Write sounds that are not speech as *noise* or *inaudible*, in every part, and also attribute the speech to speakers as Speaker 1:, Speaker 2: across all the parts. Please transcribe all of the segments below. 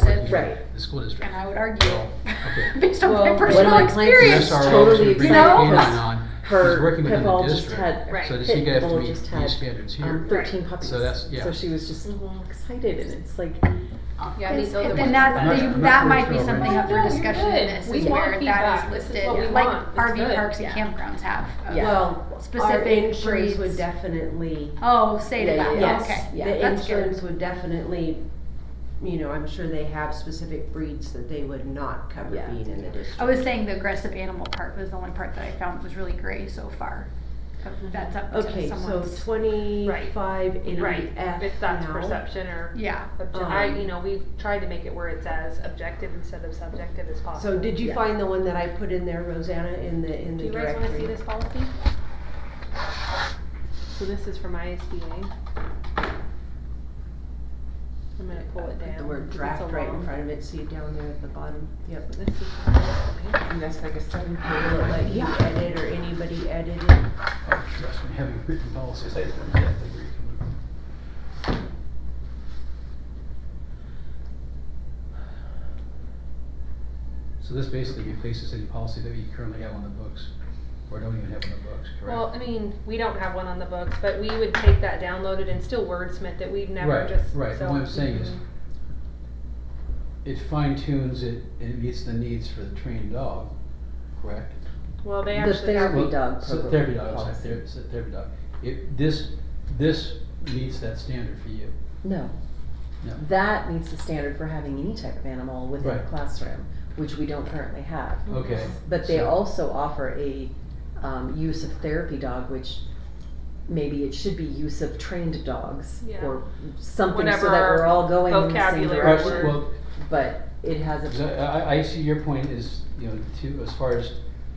Speaker 1: Right.
Speaker 2: the school district.
Speaker 3: And I would argue,
Speaker 4: *laughs*
Speaker 2: okay.
Speaker 3: based on my
Speaker 1: Well,
Speaker 3: personal
Speaker 1: when my clients-
Speaker 3: experience.
Speaker 2: That's our role
Speaker 1: totally
Speaker 2: to bring
Speaker 3: You know?
Speaker 2: opinion on,
Speaker 1: Her
Speaker 2: She's working within the
Speaker 1: pitbull just
Speaker 2: district.
Speaker 1: had
Speaker 3: Right.
Speaker 2: so does she have to
Speaker 1: Pitbull
Speaker 2: meet
Speaker 1: just had,
Speaker 2: these standards
Speaker 1: um,
Speaker 2: here?
Speaker 1: thirteen puppies.
Speaker 2: So that's- yeah.
Speaker 1: So she was just a little excited, and it's like,
Speaker 4: Uh, Yeah, these
Speaker 3: And
Speaker 4: other
Speaker 3: then
Speaker 4: ones.
Speaker 2: I'm not- I'm
Speaker 3: that,
Speaker 2: not
Speaker 3: that
Speaker 2: sure
Speaker 3: might
Speaker 2: it's
Speaker 3: be
Speaker 2: all right.
Speaker 3: something up for
Speaker 4: No, you're
Speaker 3: discussion,
Speaker 4: good.
Speaker 3: this
Speaker 4: We
Speaker 3: is
Speaker 4: want
Speaker 3: where
Speaker 4: feedback.
Speaker 3: that is
Speaker 4: This is
Speaker 3: listed,
Speaker 4: what we
Speaker 3: like
Speaker 4: want. It's
Speaker 3: RV
Speaker 4: good.
Speaker 3: parks and
Speaker 4: Yeah.
Speaker 3: campgrounds have.
Speaker 1: Yeah.
Speaker 5: Well, our
Speaker 3: Specific
Speaker 5: insurance
Speaker 3: breeds.
Speaker 5: would definitely,
Speaker 3: Oh, say to
Speaker 1: Yeah, yeah,
Speaker 3: that,
Speaker 5: yes,
Speaker 3: okay,
Speaker 1: yeah.
Speaker 5: the
Speaker 3: that's good.
Speaker 5: insurance would definitely, you know, I'm sure they have specific breeds that they would not cover
Speaker 1: Yeah.
Speaker 5: being in the district.
Speaker 3: I was saying the aggressive animal part was the only part that I found was really gray so far. That's up
Speaker 4: Oh,
Speaker 3: to
Speaker 5: Okay, so
Speaker 3: someone's,
Speaker 5: twenty-five eighty
Speaker 4: Right,
Speaker 5: F now.
Speaker 4: if that's perception or
Speaker 3: yeah,
Speaker 4: obje-
Speaker 5: Um,
Speaker 4: I, you know, we've tried to make it where it's as objective instead of subjective as possible.
Speaker 5: So did you
Speaker 1: Yeah.
Speaker 5: find the one that I put in there, Rosanna, in the, in
Speaker 4: Do
Speaker 5: the
Speaker 4: you guys wanna see
Speaker 5: directory?
Speaker 4: this policy? So this is from ISBA. I'm gonna pull it
Speaker 5: Put
Speaker 4: down.
Speaker 5: the word
Speaker 4: because it's a
Speaker 5: draft right in
Speaker 4: long-
Speaker 5: front of it, see down there at the bottom, yep.
Speaker 4: This is.
Speaker 5: And that's like a seven page. Will it let you
Speaker 4: Yeah.
Speaker 5: edit or anybody edit it?
Speaker 2: Oh, trust me, having written policies, I don't have to agree. So this basically replaces any policy that we currently have on the books, or don't even have on the books, correct?
Speaker 4: Well, I mean, we don't have one on the books, but we would take that downloaded and still wordsmith it. We've never
Speaker 2: Right,
Speaker 4: just.
Speaker 2: right, but
Speaker 4: so-
Speaker 2: what I'm saying is,
Speaker 4: Mhm.
Speaker 2: it fine tunes it, and it meets the needs for the trained dog, correct?
Speaker 4: Well, they
Speaker 5: The
Speaker 4: actually.
Speaker 5: therapy
Speaker 2: Well,
Speaker 5: dog
Speaker 2: so
Speaker 5: program
Speaker 2: Therapy dog, sorry,
Speaker 5: policy.
Speaker 2: ther- so therapy dog. It, this, this meets that standard for you.
Speaker 1: no.
Speaker 2: No.
Speaker 1: That meets the standard for having any type of animal within a
Speaker 2: Right.
Speaker 1: classroom, which we don't currently have.
Speaker 2: Okay.
Speaker 1: But they
Speaker 2: so-
Speaker 1: also offer a, um, use of therapy dog, which maybe it should be use of trained dogs
Speaker 4: Yeah.
Speaker 1: or something so that
Speaker 4: Whatever
Speaker 1: we're all going in the same
Speaker 4: vocabulary
Speaker 2: Right,
Speaker 1: direction.
Speaker 4: word.
Speaker 2: Well,
Speaker 1: But it has
Speaker 2: so
Speaker 1: a,
Speaker 2: I, I see your point is, you know, to, as far as,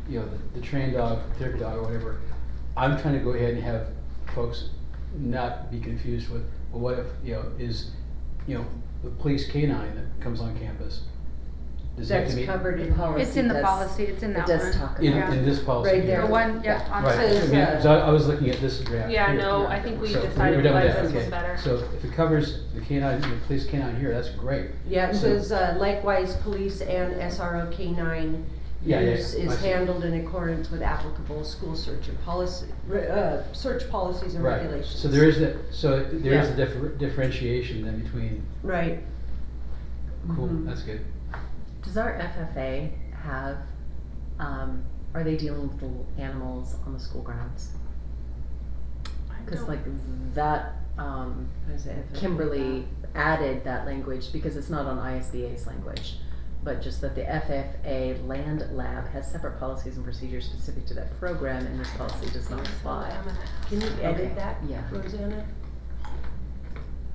Speaker 2: you know, the- the trained dog, therapy dog, or whatever. I'm trying to go ahead and have folks not be confused with, well, what if, you know, is, you know, the police canine that comes on campus? Does that
Speaker 5: That's
Speaker 2: meet-
Speaker 5: covered in policy.
Speaker 3: it's in the
Speaker 1: does-
Speaker 3: policy, it's in
Speaker 1: it
Speaker 3: that
Speaker 1: does
Speaker 3: one.
Speaker 1: talk
Speaker 2: In,
Speaker 1: about,
Speaker 3: Yeah.
Speaker 2: in this policy.
Speaker 5: Right
Speaker 2: here?
Speaker 5: there.
Speaker 3: The one, yeah,
Speaker 5: Yeah.
Speaker 3: on
Speaker 2: Right,
Speaker 5: Says,
Speaker 2: I mean,
Speaker 5: uh,
Speaker 2: so I I was looking at this draft.
Speaker 4: Yeah,
Speaker 2: here.
Speaker 4: no, I think we
Speaker 2: So,
Speaker 4: decided
Speaker 2: we're done with
Speaker 4: to
Speaker 2: that,
Speaker 4: this
Speaker 2: okay.
Speaker 4: was better.
Speaker 2: So if it covers the canine, the police canine here, that's great.
Speaker 5: Yeah, it
Speaker 2: So-
Speaker 5: says uh, likewise, police and SRO K nine
Speaker 2: Yeah, yeah,
Speaker 5: use
Speaker 2: I
Speaker 5: is
Speaker 2: see.
Speaker 5: handled in accordance with applicable school search and policy, re- uh, search policies and
Speaker 2: Right,
Speaker 5: regulations.
Speaker 2: so there is that, so there is a differ- differentiation then between,
Speaker 5: Right.
Speaker 2: cool,
Speaker 5: Mhm.
Speaker 2: that's good.
Speaker 1: does our FFA have, um, are they dealing with little animals on the school grounds?
Speaker 4: I
Speaker 1: Cause
Speaker 4: don't-
Speaker 1: like that, um,
Speaker 5: What is it, if it-
Speaker 1: Kimberly added that language because it's not on ISBA's language, but just that the FFA Land Lab has separate policies and procedures specific to that program, and this policy does not apply.
Speaker 4: I'm gonna-
Speaker 5: Can you
Speaker 1: Okay,
Speaker 5: edit that,
Speaker 1: yeah.
Speaker 5: Rosanna?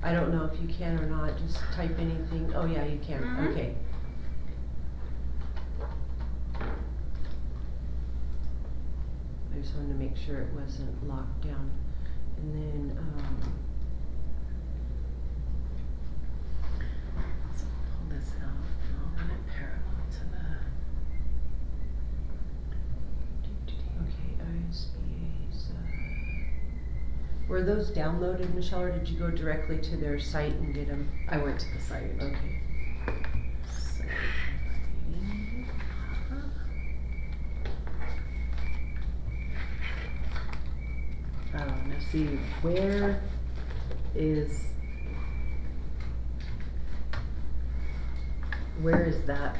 Speaker 5: I don't know if you can or not, just type anything, oh yeah, you can,
Speaker 1: Mm-hmm.
Speaker 3: Mhm.
Speaker 5: okay. I just wanted to make sure it wasn't locked down, and then, um.
Speaker 1: So pull this out, and I'll run it parallel to the.
Speaker 5: Okay, ISBA's, uh. Were those downloaded, Michelle, or did you go directly to their site and get them?
Speaker 1: I went to the site.
Speaker 5: Okay.
Speaker 1: So, Um, let's see, where is, where is that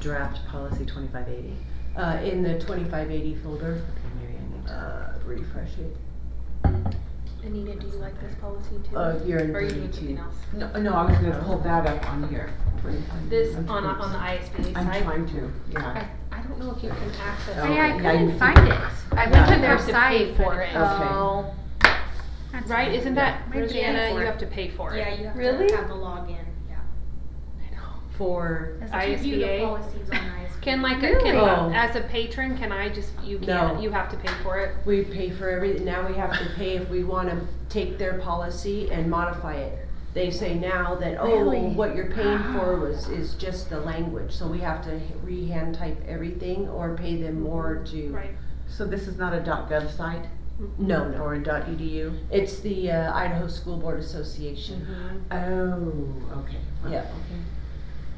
Speaker 1: draft policy twenty-five eighty?
Speaker 5: Uh, in the twenty-five eighty folder,
Speaker 1: Okay, maybe I need to.
Speaker 5: uh, refresh it.
Speaker 4: Anita, do you like this policy too?
Speaker 5: Uh, you're in
Speaker 4: Or you
Speaker 5: thirty-two.
Speaker 4: need something else?
Speaker 6: No, no, I was gonna pull that up on here. for you. I'm-
Speaker 4: This,
Speaker 6: I'm
Speaker 4: on, a-
Speaker 6: trying-
Speaker 4: on the ISBA side.
Speaker 6: I'm trying to, yeah.
Speaker 4: I, I don't know if you can access.
Speaker 6: Oh,
Speaker 3: Hey,
Speaker 4: it.
Speaker 3: I
Speaker 6: okay.
Speaker 3: couldn't
Speaker 6: Yeah.
Speaker 3: find it. I went
Speaker 6: Yeah.
Speaker 3: to their
Speaker 4: You have to pay
Speaker 3: site,
Speaker 4: for
Speaker 3: but
Speaker 4: it.
Speaker 6: Okay.
Speaker 3: it- oh. That's
Speaker 4: Right,
Speaker 3: fine.
Speaker 4: isn't that,
Speaker 3: Yeah.
Speaker 4: Rosanna, you have to pay for it.
Speaker 7: Yeah, you have
Speaker 3: Really?
Speaker 7: to have the login. Yeah.
Speaker 5: For,
Speaker 3: That's
Speaker 7: To view the
Speaker 4: ISBA.
Speaker 7: policies on ISBA.
Speaker 4: Can like, a-
Speaker 3: Really?
Speaker 4: can, uh,
Speaker 5: Oh.
Speaker 4: as a patron, can I just, you
Speaker 5: No.
Speaker 4: can't, you have to pay for it?
Speaker 5: we pay for everything, now we have to pay if we wanna take their policy and modify it. They say now that, oh,
Speaker 3: Really?
Speaker 5: what you're paying for was, is just the language, so we have to re-hand type everything or pay them more to.
Speaker 4: Right.
Speaker 6: So this is not a .gov site
Speaker 5: No, no,
Speaker 6: or a .edu?
Speaker 5: it's the uh, Idaho School Board Association.
Speaker 6: Oh, okay.
Speaker 5: Yeah.
Speaker 6: Okay.